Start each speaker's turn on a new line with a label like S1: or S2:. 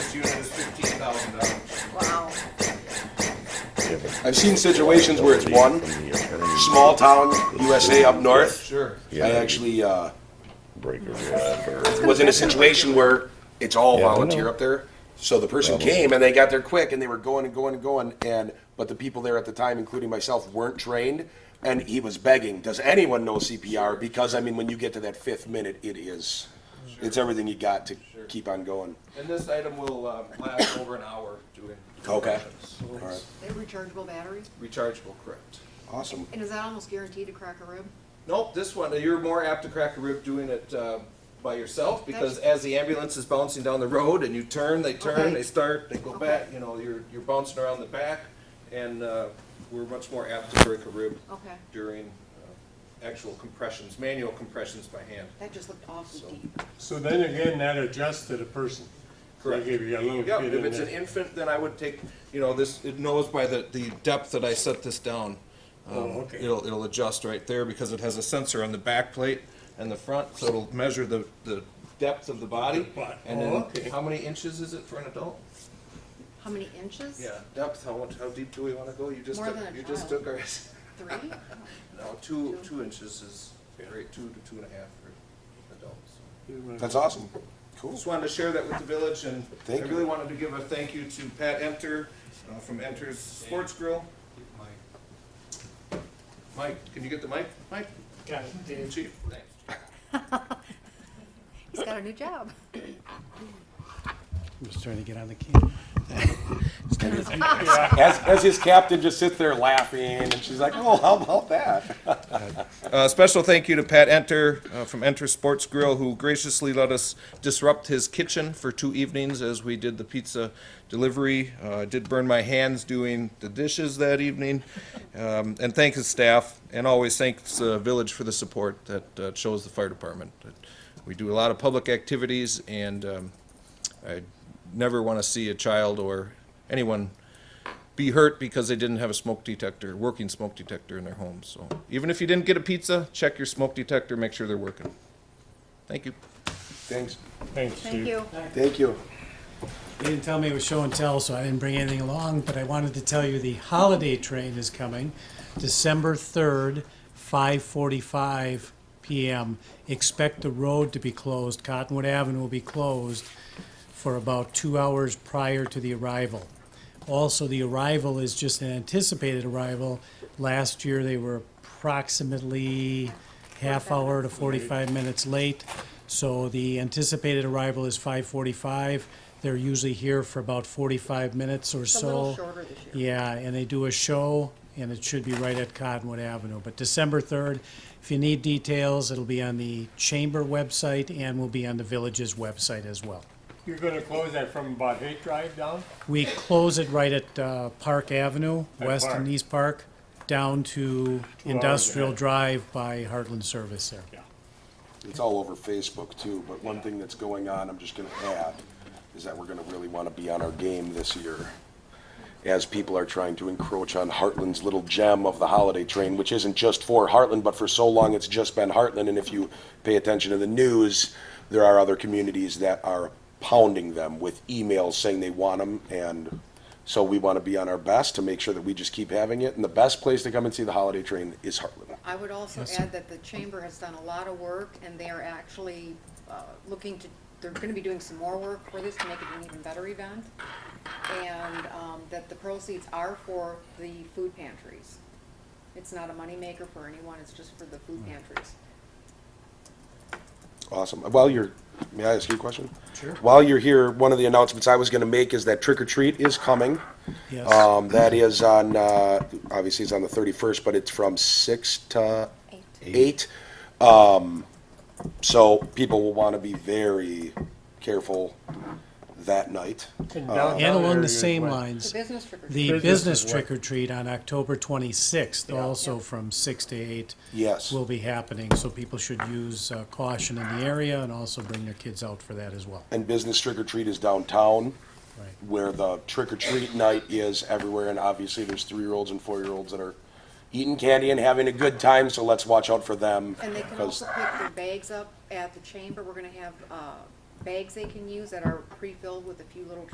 S1: I've seen situations where it's one small town USA up north.
S2: Sure.
S1: I actually uh,
S3: Breaker whatever.
S1: was in a situation where it's all
S3: Yeah, I
S1: volunteer
S3: know.
S1: up there. So the person came and they got there quick and they were going and going and going and but the people there at the time, including myself, weren't trained. And he was begging, "Does anyone know CPR?" Because I mean, when you get to that fifth minute, it is, it's everything you got to
S2: Sure.
S1: keep on going.
S2: And this item will uh, last over an hour doing.
S1: Okay.
S2: So it's
S1: Alright.
S4: They're rechargeable batteries?
S2: Rechargeable, correct.
S1: Awesome.
S4: And is that almost guaranteed to crack a rib?
S2: Nope, this one, uh, you're more apt to crack a rib doing it uh, by yourself because
S4: That's-
S2: as the ambulance is bouncing down the road and you turn, they turn,
S4: Okay.
S2: they start, they go
S4: Okay.
S2: back, you know, you're, you're bouncing around the back and uh, we're much more apt to break a rib
S4: Okay.
S2: during uh, actual compressions, manual compressions by hand.
S4: That just looked
S2: So-
S4: awfully deep.
S5: So then again, that adjusts to the person.
S2: Correct.
S5: Like if you got a little
S2: Yeah,
S5: kid
S2: if
S5: in
S2: it's an
S5: there.
S2: infant, then I would take, you know, this, it knows by the, the depth that I set this down. Um,
S5: Oh, okay.
S2: It'll, it'll adjust right there because it has a sensor on the back plate and the front, so it'll measure the, the depth of the body.
S5: But-
S2: And
S5: oh,
S2: then,
S5: okay.
S2: how many inches is it for an adult?
S4: How many inches?
S2: Depth, how, much- how deep do we wanna go? You just,
S4: More
S2: took-
S4: than a
S2: you just
S4: child.
S2: took ours.
S4: Three?
S2: No, two,
S4: Two.
S2: two inches is great, two to two and a half for adults.
S1: That's awesome. Cool.
S2: Just wanted to share that with the village, and I
S1: Thank you.
S2: really wanted to give a thank you to Pat Enter uh, from Enter's Sports Grill. Mike, can you get the mic? Mike?
S6: Got it, Dave.
S2: Chief? Thanks.
S4: He's got a new job.
S6: I'm just trying to get on the camera.
S1: As, as his captain just sits there laughing and she's like, "Oh, how about that?"
S2: Uh, special thank you to Pat Enter uh, from Enter Sports Grill, who graciously let us disrupt his kitchen for two evenings as we did the pizza delivery. Uh, I did burn my hands doing the dishes that evening. Um, and thank his staff, and always thanks uh, Village for the support that uh, shows the fire department. We do a lot of public activities, and um, I never want to see a child or anyone be hurt because they didn't have a smoke detector, working smoke detector in their home. So even if you didn't get a pizza, check your smoke detector, make sure they're working. Thank you.
S1: Thanks.
S5: Thanks,
S4: Thank
S5: Steve.
S4: you.
S1: Thank you.
S6: They didn't tell me it was show and tell, so I didn't bring anything along, but I wanted to tell you the holiday train is coming, December third, five forty-five PM. Expect the road to be closed, Cottonwood Avenue will be closed for about two hours prior to the arrival. Also, the arrival is just an anticipated arrival. Last year, they were approximately half hour to 45 minutes late. So the anticipated arrival is 5:45. They're usually here for about 45 minutes or
S4: It's a
S6: so.
S4: little shorter this year.
S6: Yeah, and they do a show, and it should be right at Cottonwood Avenue. But December 3rd, if you need details, it'll be on the chamber website and will be on the village's website as well.
S5: You're gonna close that from about eight drive down?
S6: We close it right at uh, Park Avenue,
S5: At
S6: west
S5: Park.
S6: and east Park, down to
S5: hours
S6: Industrial
S5: ahead.
S6: Drive by Heartland Service there.
S1: It's all over Facebook too, but one thing that's going on, I'm just gonna add, is that we're gonna really wanna be on our game this year. As people are trying to encroach on Heartland's little gem of the holiday train, which isn't just for Heartland, but for so long it's just been Heartland, and if you pay attention to the news, there are other communities that are pounding them with emails saying they want them, and so we wanna be on our best to make sure that we just keep having it, and the best place to come and see the holiday train is Heartland.
S4: I would also add that the chamber has done a lot of work, and they are actually uh, looking to, they're gonna be doing some more work for this to make it an even better event. And um, that the proceeds are for the food pantries. It's not a moneymaker for anyone, it's just for the food pantries.
S1: Awesome. While you're, may I ask you a question? Sure. While you're here, one of the announcements I was going to make is that trick or treat is coming.
S6: Yes.
S1: Um, that is on, uh, obviously it's on the thirty-first, but it's from six to eight. Um, so people will want to be very careful that night.
S5: And
S6: Uh, And
S5: downtown
S6: along
S5: area
S6: the
S5: is
S6: same
S5: what?
S4: The
S6: lines,
S4: business trick or treat.
S6: the
S5: Business
S6: business
S5: is what?
S6: trick or treat on October 26th, also from 6 to 8,
S1: Yes.
S6: will be happening. So people should use uh, caution in the area and also bring their kids out for that as well.
S1: And business trick or treat is downtown.
S6: Right.
S1: where the trick or treat night is everywhere, and obviously there's three year olds and four year olds that are eating candy and having a good time, so let's watch out for them.
S4: And they can
S1: 'cause-
S4: also pick their bags up at the chamber. We're gonna have, uh, bags they can use that are pre-filled with a few little